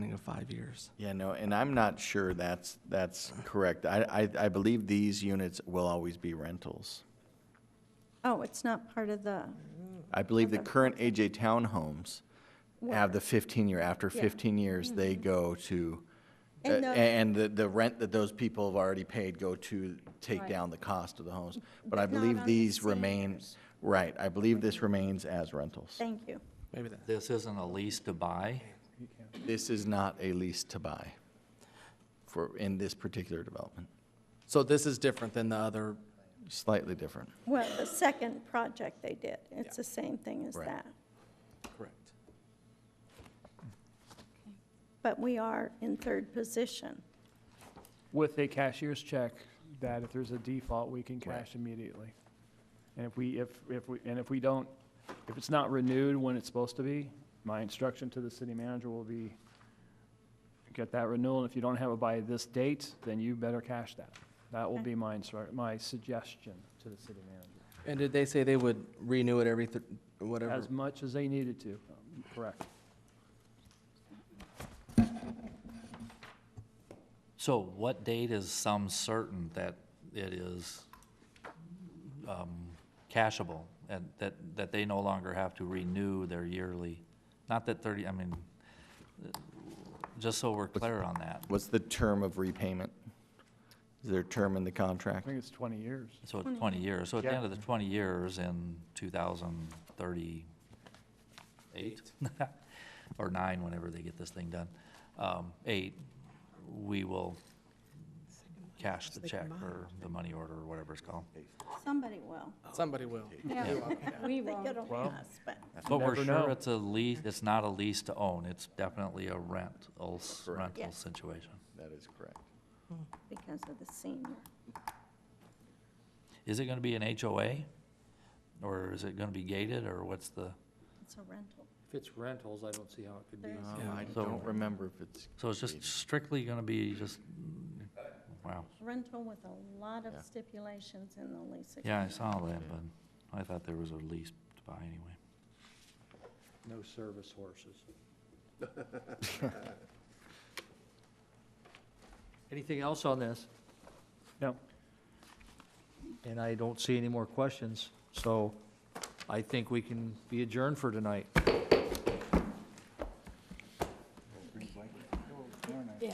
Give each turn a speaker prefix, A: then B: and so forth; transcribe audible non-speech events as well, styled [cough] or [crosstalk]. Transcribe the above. A: ceiling of five years.
B: Yeah, no, and I'm not sure that's, that's correct. I, I, I believe these units will always be rentals.
C: Oh, it's not part of the,
B: I believe the current AJ Townhomes have the fifteen year, after
C: Yeah. Mm-hmm.
B: fifteen years, they go to, uh,
C: And the-
B: and the, the rent that those people have already paid go to take
C: Right.
B: down the cost of the homes. But I
C: But not
B: believe
C: on the
B: these
C: same
B: remain,
C: years.
B: right, I believe this remains as rentals.
C: thank you.
A: Maybe that,
D: This isn't a lease to buy?
B: This is not a lease to buy for, in this particular development,
A: so this is different than the other,
B: slightly different.
C: Well, the second project they did, it's the same thing as
B: Right.
C: that.
A: correct.
C: But we are in third position.
E: with a cashier's check that if there's a default, we can cash immediately. And if we, if, if we, and if we don't, if it's not renewed when it's supposed to be, my instruction to the city manager will be, get that renewal, and if you don't have it by this date, then you better cash that. That will be my instru, my suggestion to the city manager,
A: And did they say they would renew it every, th- whatever?
E: as much as they needed to, correct.
D: So what date is some certain that it is um, cashable and that, that they no longer have to renew their yearly? Not that 30, I mean, uh, just so we're clear on that.
B: What's the term of repayment? Is there a term in the
E: I
B: contract?
E: think it's twenty years.
D: So it's 20 years. So at the
E: Yeah.
D: end of the 20 years in 2038 [laughs] or 9, whenever they get this thing done, um, 8, we will cash the check or the money order or whatever it's called.
C: Somebody will.
A: Somebody will.
C: We won't. They don't
E: Well-
C: pass, but
D: But we're
E: never
D: sure
E: know.
D: it's a lease, it's not a lease to own. It's definitely a rental, s- rental
C: Yes.
D: situation.
B: That is correct.
C: because of the senior.
D: Is it going to be an HOA? Or is it going to be gated or what's the,
C: It's a rental.
F: If it's rentals, I don't see how it could be.
C: There's-
A: Oh,
B: I
D: So-
B: don't remember if it's.
D: so it's just strictly going to be just, wow.
C: Rental with a lot of
B: Yeah.
C: stipulations in the lease.
D: Yeah, I
C: agreement.
D: saw that, but I thought there was a lease to buy anyway.
F: No service horses. [laughs] Anything else on this?
E: No,
F: And I don't see any more questions, so I think we can be adjourned for tonight.